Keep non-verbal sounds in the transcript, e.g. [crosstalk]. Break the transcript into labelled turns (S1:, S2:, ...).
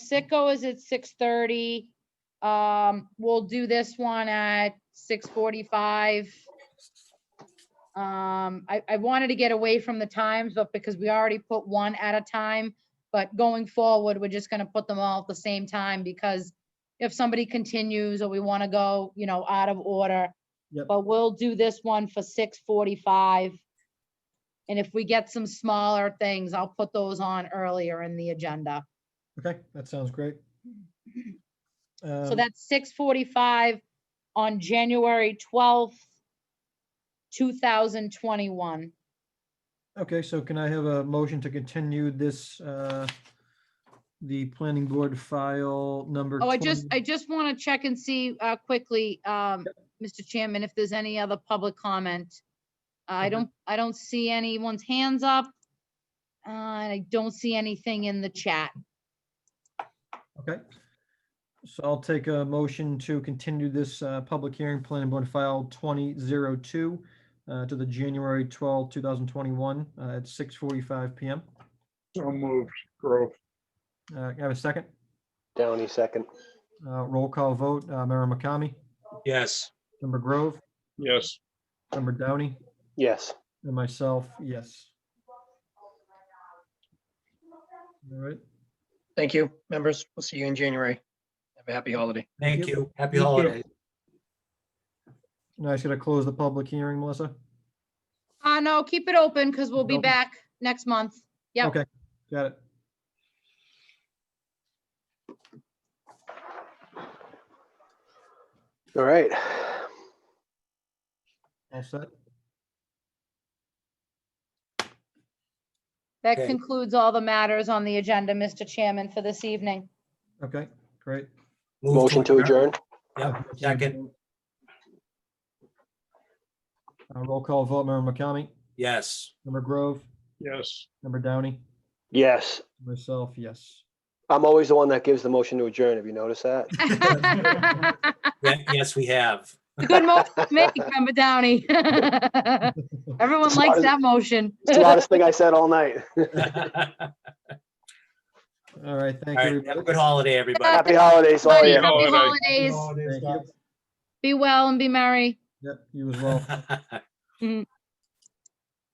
S1: Sicko is at six thirty. Um, we'll do this one at six forty-five. Um, I, I wanted to get away from the times, but because we already put one at a time. But going forward, we're just gonna put them all at the same time because if somebody continues or we want to go, you know, out of order.
S2: Yep.
S1: But we'll do this one for six forty-five. And if we get some smaller things, I'll put those on earlier in the agenda.
S2: Okay, that sounds great.
S1: So
S2: Um,
S1: that's six forty-five on January twelfth, two thousand twenty-one.
S2: Um, Okay, so can I have a motion to continue this, uh, the planning board file number?
S1: Oh, I just,
S2: 20
S1: I just want to check and see uh, quickly, um, Mr. Chairman, if there's any other public comment. I
S2: Okay.
S1: don't, I don't see anyone's hands up. Uh, and I don't see anything in the chat.
S2: Okay. So I'll take a motion to continue this, uh, public hearing, planning board file twenty zero two, uh, to the January twelfth, two thousand twenty-one, uh, at six forty-five PM.
S3: So moved, Grove.
S2: Uh, can I have a second?
S4: Downey, second.
S2: Uh, roll call vote, uh, Member McCamey,
S5: yes.
S2: Member Grove,
S3: Yes,
S2: Member Downey,
S4: Yes.
S2: and myself, yes. All right.
S6: Thank you, members. We'll see you in January. Have a happy holiday.
S5: Thank you. Happy
S2: Thank you.
S5: holidays.
S2: Now I just gotta close the public hearing, Melissa?
S1: Uh, no, keep it open because we'll be
S2: Open.
S1: back next month. Yep.
S2: Okay, got it.
S4: All right.
S2: All set.
S1: That
S5: Okay.
S1: concludes all the matters on the agenda, Mr. Chairman, for this
S2: [laughs]
S1: evening. [laughs]
S2: Okay, great.
S5: Move
S4: Motion to adjourn?
S5: Yep, second,
S2: Uh, Roll call vote, Member McCamey,
S5: yes.
S2: Member Grove,
S3: yes.
S2: Member Downey,
S4: Yes.
S2: myself, yes.
S4: I'm always the one that gives the motion to adjourn. Have you noticed that?
S5: Ye- Yes, we have. [laughs]
S1: It's a Good motion to make, Member Downey. [laughs] Everyone likes that motion.
S4: It's [laughs] the oddest thing I said all night.
S5: All right,
S2: All right, thank you.
S5: have a
S2: everybody.
S5: good holiday, everybody.
S4: Happy holidays,
S1: [laughs]
S4: all
S1: Everybody,
S4: you.
S1: Happy
S3: Holiday.
S1: holidays.
S2: Thank you.
S1: Be well and be merry.
S5: [laughs]
S2: Yep, you as well.
S1: Mhm.